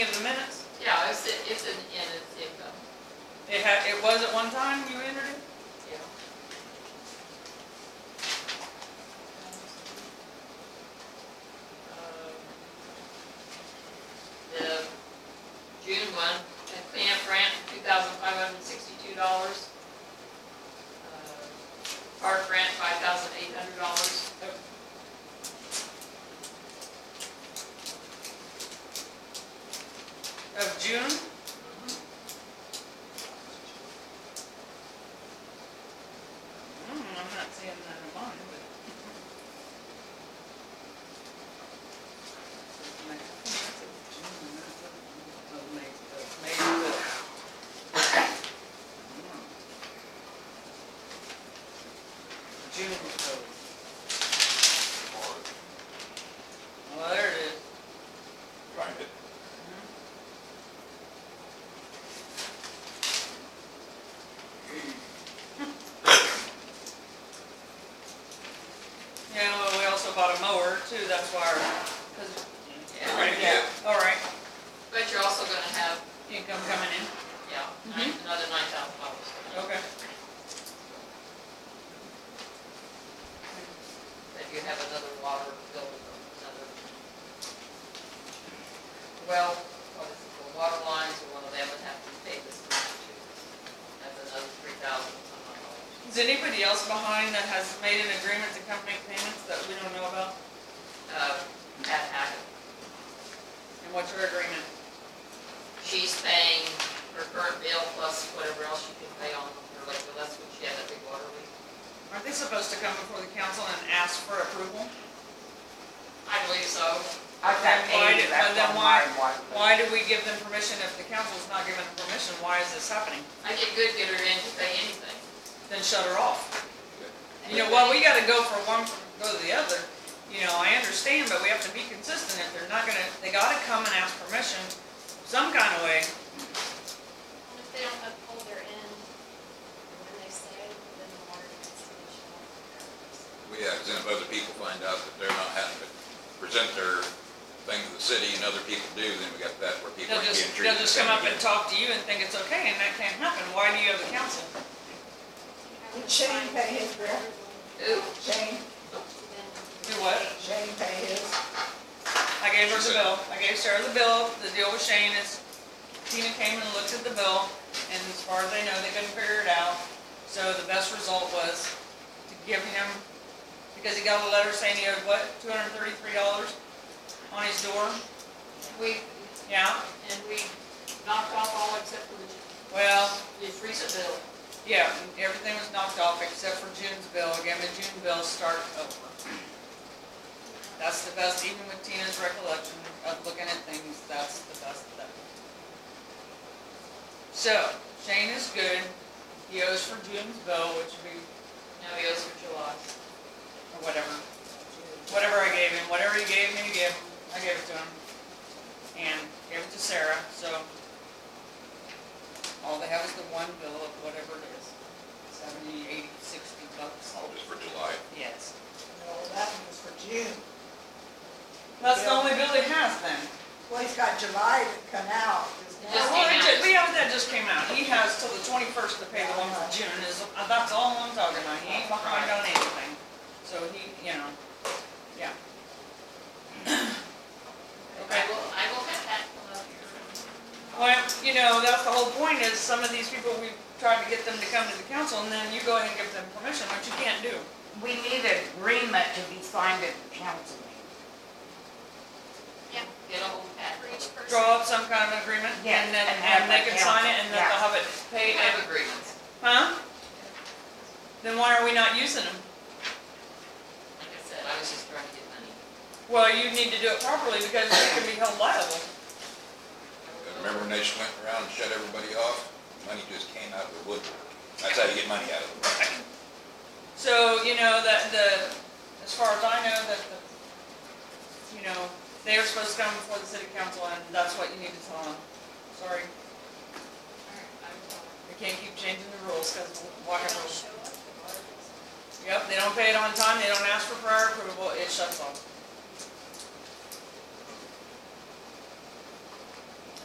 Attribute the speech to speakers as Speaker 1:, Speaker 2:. Speaker 1: It's, in- it's in, in its income,
Speaker 2: It had, it was at one time you entered it?
Speaker 1: yeah. Um, The June one, the cleanup grant, two thousand five hundred and sixty-two dollars. Uh, Park grant, five thousand eight hundred dollars.
Speaker 2: Of June? Mm, I'm not seeing that in mine, but. June, so. Well, there it is.
Speaker 3: Find it.
Speaker 2: Yeah, well, we also bought a mower too, that's why our, cause.
Speaker 1: Yeah.
Speaker 3: Yeah.
Speaker 2: All right,
Speaker 1: But you're also gonna have,
Speaker 2: income coming in,
Speaker 1: yeah, nine-
Speaker 2: Mhm.
Speaker 1: another nine thousand dollars
Speaker 2: okay.
Speaker 1: that you have another water bill, another. Well, what is it, the water lines, or one of them would have to pay this much too. That's another three thousand something
Speaker 2: Is
Speaker 1: dollars.
Speaker 2: anybody else behind that has made an agreement to come make payments that we don't know about?
Speaker 1: Uh, that happened.
Speaker 2: And what's your agreement?
Speaker 1: She's paying her current bill plus whatever else she can pay on her, like, well, that's what she had that big water leak.
Speaker 2: Aren't they supposed to come before the council and ask for approval?
Speaker 1: I believe so.
Speaker 4: I've got
Speaker 2: Then why
Speaker 4: eighty
Speaker 2: do-
Speaker 4: left
Speaker 2: then
Speaker 4: on
Speaker 2: why-
Speaker 4: mine, why?
Speaker 2: Why do we give them permission if the council's not giving them permission? Why is this happening?
Speaker 1: I did good get her in to pay anything.
Speaker 2: Then shut her off. You know, well, we gotta go for one, go to the other, you know, I understand, but we have to be consistent, if they're not gonna, they gotta come and ask permission some kind of way.
Speaker 5: And if they don't uphold their end, when they say, then the water gets to the shore.
Speaker 3: We have, then if other people find out that they're not having to present their thing to the city and other people do, then we got that where
Speaker 2: They'll
Speaker 3: people are getting
Speaker 2: just,
Speaker 3: treated
Speaker 2: they'll
Speaker 3: the
Speaker 2: just
Speaker 3: same
Speaker 2: come up and
Speaker 3: again.
Speaker 2: talk to you and think it's okay, and that can't happen, why do you have the council?
Speaker 4: Did Shane pay his bill?
Speaker 1: Who?
Speaker 4: Shane,
Speaker 2: Do what?
Speaker 4: Shane pay his?
Speaker 2: I gave her the bill, I gave Sarah the bill, the deal with Shane is, Tina came and looked at the bill, and as far as they know, they couldn't figure it out. So the best result was to give him, because he got a letter saying he owed what, two hundred and thirty-three dollars on his door,
Speaker 1: We,
Speaker 2: yeah,
Speaker 1: and we knocked off all except for the
Speaker 2: well,
Speaker 1: His recent bill,
Speaker 2: yeah, everything was knocked off except for June's bill, again, the June bill start over. That's the best, even with Tina's recollection of looking at things, that's the best thing. So, Shane is good, he owes for June's bill, which would be,
Speaker 1: now he owes for July.
Speaker 2: or whatever, whatever I gave him, whatever he gave me, give, I gave it to him. And gave it to Sarah, so all they have is the one bill of whatever it is, seventy, eighty, sixty bucks.
Speaker 3: All just for July.
Speaker 2: Yes.
Speaker 4: No, that one's for June.
Speaker 2: That's the only bill he has then.
Speaker 4: Well, he's got July to come out. is
Speaker 1: It
Speaker 4: one.
Speaker 1: just
Speaker 2: Well,
Speaker 1: came
Speaker 2: it
Speaker 1: out.
Speaker 2: ju- we have, that just came out. He has till the twenty-first to pay the one for June is, uh, that's all I'm talking about. He ain't behind on anything. So he, you know, yeah.
Speaker 1: I will, I will have that one up here.
Speaker 2: Well, you know, that's the whole point is some of these people, we tried to get them to come to the council and then you go ahead and give them permission, which you can't do.
Speaker 6: We need an agreement to be signed at the council meeting.
Speaker 1: Yeah, get a hold of Pat.
Speaker 5: For each person.
Speaker 2: Draw up some kind of agreement
Speaker 6: Yes,
Speaker 2: and then,
Speaker 6: and have
Speaker 2: and they
Speaker 6: the
Speaker 2: can sign it
Speaker 6: council,
Speaker 2: and then they'll have it
Speaker 1: They
Speaker 2: paid.
Speaker 1: have agreements,
Speaker 2: Huh? Then why are we not using them?
Speaker 1: like I said, I was just trying to get money.
Speaker 2: Well, you need to do it properly because we can be held liable.
Speaker 3: Remember when they just went around and shut everybody off? Money just came out of the woodwork. That's how you get money out of the woodwork.
Speaker 2: So, you know, that the, as far as I know, that the, you know, they are supposed to come before the city council and that's what you need to tell them. Sorry, we can't keep changing the rules because water
Speaker 5: Don't
Speaker 2: rules.
Speaker 5: show up, the water gets-
Speaker 2: Yep, they don't pay it on time, they don't ask for prior approval, it shuts off.